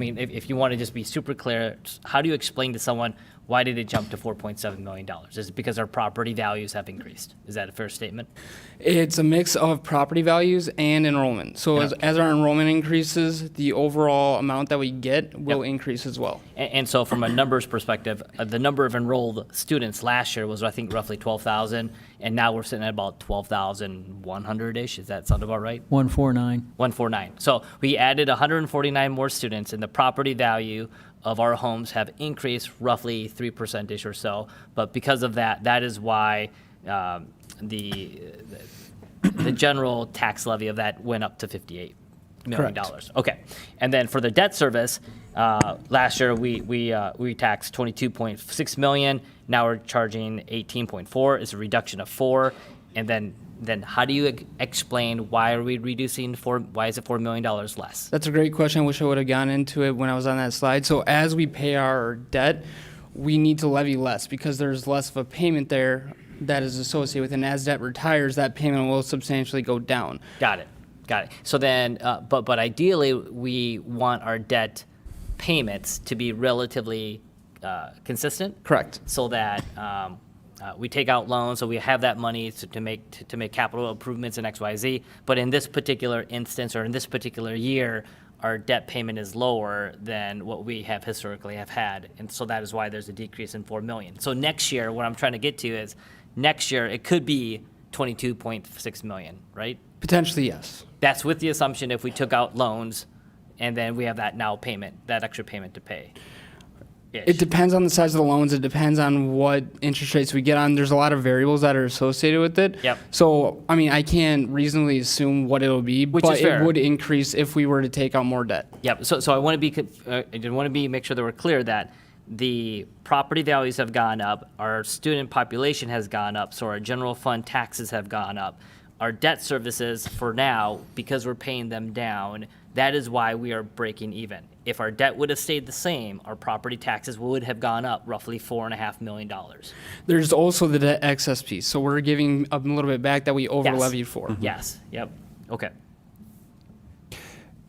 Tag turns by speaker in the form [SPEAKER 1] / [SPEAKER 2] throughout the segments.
[SPEAKER 1] I mean, if, if you want to just be super clear, s- how do you explain to someone, why did it jump to $4.7 million? Is it because our property values have increased? Is that a fair statement?
[SPEAKER 2] It's a mix of property values and enrollment. So as, as our enrollment increases, the overall amount that we get will increase as well.
[SPEAKER 1] A- And, so from a numbers perspective, uh, the number of enrolled students last year was, I think, roughly 12,000, and now we're sitting at about 12,100-ish. Does that sound about right?
[SPEAKER 3] 149.
[SPEAKER 1] 149. So we added 149 more students, and the property value of our homes have increased roughly 3%-ish or so. But because of that, that is why um, the, the general tax levy of that went up to $58 million. Okay. And then for the debt service, uh, last year, we, we, uh, we taxed 22.6 million. Now we're charging 18.4. It's a reduction of four. And then, then how do you ex- explain why are we reducing four, why is it $4 million less?
[SPEAKER 2] That's a great question. I wish I would have gone into it when I was on that slide. So as we pay our debt, we need to levy less because there's less of a payment there that is associated with, and as debt retires, that payment will substantially go down.
[SPEAKER 1] Got it. Got it. So then, uh, but, but ideally, we want our debt payments to be relatively uh, consistent.
[SPEAKER 2] Correct.
[SPEAKER 1] so that um, uh, we take out loans, so we have that money to, to make to, to make capital improvements in X, Y, Z. But in this particular instance, or in this particular year, our debt payment is lower than what we have historically have had, and so that is why there's a decrease in four million. So next year, what I'm trying to get to is, next year it could be 22.6 million, right?
[SPEAKER 2] Potentially, yes.
[SPEAKER 1] That's with the assumption if we took out loans, and then we have that now payment, that extra payment to pay.
[SPEAKER 2] It depends on the size of the loans. It depends on what interest rates we get on. There's a lot of variables that are associated with it.
[SPEAKER 1] Yep.
[SPEAKER 2] So, I mean, I can't reasonably assume what it'll be, but
[SPEAKER 1] is fair.
[SPEAKER 2] it would increase if we were to take out more debt.
[SPEAKER 1] Yep, so, so I want to be, co- uh, I did want to be, make sure that we're clear that the property values have gone up, our student population has gone up, so our general fund taxes have gone up. Our debt services for now, because we're paying them down, that is why we are breaking even. If our debt would have stayed the same, our property taxes would have gone up roughly four and a half million dollars.
[SPEAKER 2] There's also the debt excess piece. So we're giving a little bit back that we over levied hmm. for.
[SPEAKER 1] Yes, yep, okay.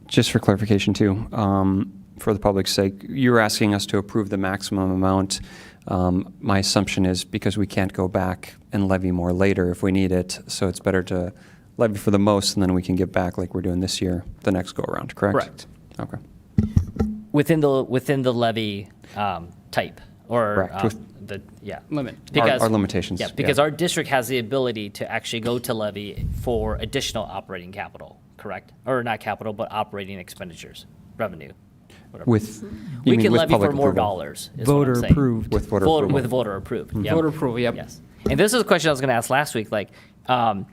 [SPEAKER 4] Just for clarification, too, um, for the public's sake, you're asking us to approve the maximum amount. Um, My assumption is because we can't go back and levy more later if we need it, so it's better to levy for the most, and then we can give back like we're doing this year, the next go-around, correct?
[SPEAKER 2] Correct.
[SPEAKER 4] Okay.
[SPEAKER 1] Within the, within the levy um, type, or
[SPEAKER 4] Correct,
[SPEAKER 1] um,
[SPEAKER 4] with-
[SPEAKER 1] the, yeah.
[SPEAKER 2] Limit.
[SPEAKER 4] Our-
[SPEAKER 1] Because-
[SPEAKER 4] our limitations,
[SPEAKER 1] Yeah,
[SPEAKER 4] yeah.
[SPEAKER 1] because our district has the ability to actually go to levy for additional operating capital, correct? Or not capital, but operating expenditures, revenue.
[SPEAKER 4] With, you
[SPEAKER 1] We
[SPEAKER 4] mean
[SPEAKER 1] can
[SPEAKER 4] with
[SPEAKER 1] levy
[SPEAKER 4] public
[SPEAKER 1] for more
[SPEAKER 4] approval?
[SPEAKER 1] dollars, is what I'm
[SPEAKER 3] Voter
[SPEAKER 1] saying.
[SPEAKER 3] approved.
[SPEAKER 4] With voter
[SPEAKER 1] Voter-
[SPEAKER 4] approval?
[SPEAKER 1] With voter approved, yep.
[SPEAKER 2] Voter approval, yep.
[SPEAKER 1] Yes. And this is a question I was going to ask last week, like, um,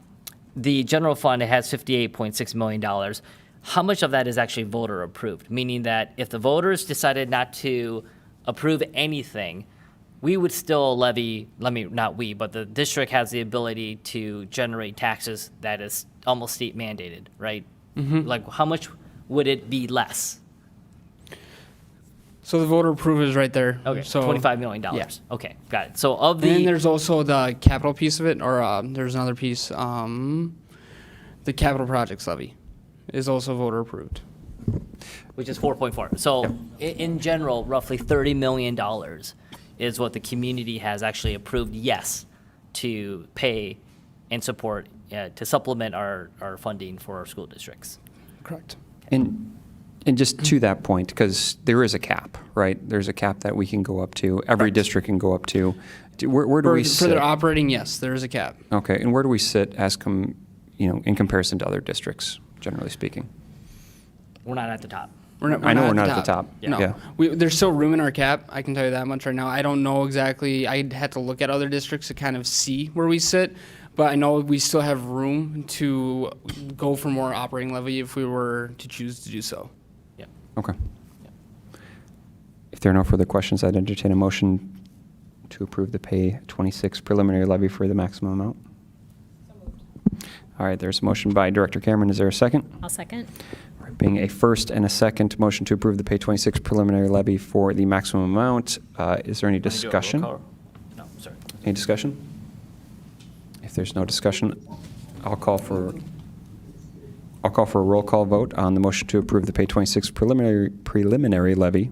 [SPEAKER 1] the general fund has fifty-eight point six million dollars. How much of that is actually voter approved? Meaning that if the voters decided not to approve anything, we would still levy, let me, not we, but the district has the ability to generate taxes that is almost state mandated, right?
[SPEAKER 2] Mm-hmm.
[SPEAKER 1] Like, how much would it be less?
[SPEAKER 2] So the voter approval is right there.
[SPEAKER 1] Okay,
[SPEAKER 2] So
[SPEAKER 1] twenty-five million dollars. Okay, got it. So of the.
[SPEAKER 2] And then there's also the capital piece of it, or uh, there's another piece. Um, the capital projects levy is also voter approved.
[SPEAKER 1] which is 4.4. So i- in general, roughly 30 million dollars is what the community has actually approved yes to pay and support uh, to supplement our, our funding for our school districts.
[SPEAKER 2] Correct.
[SPEAKER 4] And, and just to that point, because there is a cap, right? There's a cap that we can go up to, every district can go up to. Do- Where where do
[SPEAKER 2] For,
[SPEAKER 4] we
[SPEAKER 2] for
[SPEAKER 4] sit?
[SPEAKER 2] their operating, yes, there is a cap.
[SPEAKER 4] Okay, and where do we sit as com, you know, in comparison to other districts, generally speaking?
[SPEAKER 1] We're not at the top.
[SPEAKER 2] We're not,
[SPEAKER 4] I know we're not at the top. Yeah.
[SPEAKER 2] No,
[SPEAKER 4] Yeah.
[SPEAKER 2] we, there's still room in our cap. I can tell you that much right now. I don't know exactly. I'd have to look at other districts to kind of see where we sit, but I know we still have room to go for more operating levy if we were to choose to do so.
[SPEAKER 1] Yep.
[SPEAKER 4] Okay. If there are no further questions, I'd entertain a motion to approve the pay 26 preliminary levy for the maximum amount. All right, there's a motion by Director Cameron. Is there a second?
[SPEAKER 5] I'll second.
[SPEAKER 4] All right, Being a first and a second, motion to approve the pay 26 preliminary levy for the maximum amount. Uh, Is there any discussion?
[SPEAKER 1] No, sorry.
[SPEAKER 4] Any discussion? If there's no discussion, I'll call for, I'll call for a roll call vote on the motion to approve the pay 26 preliminary, preliminary levy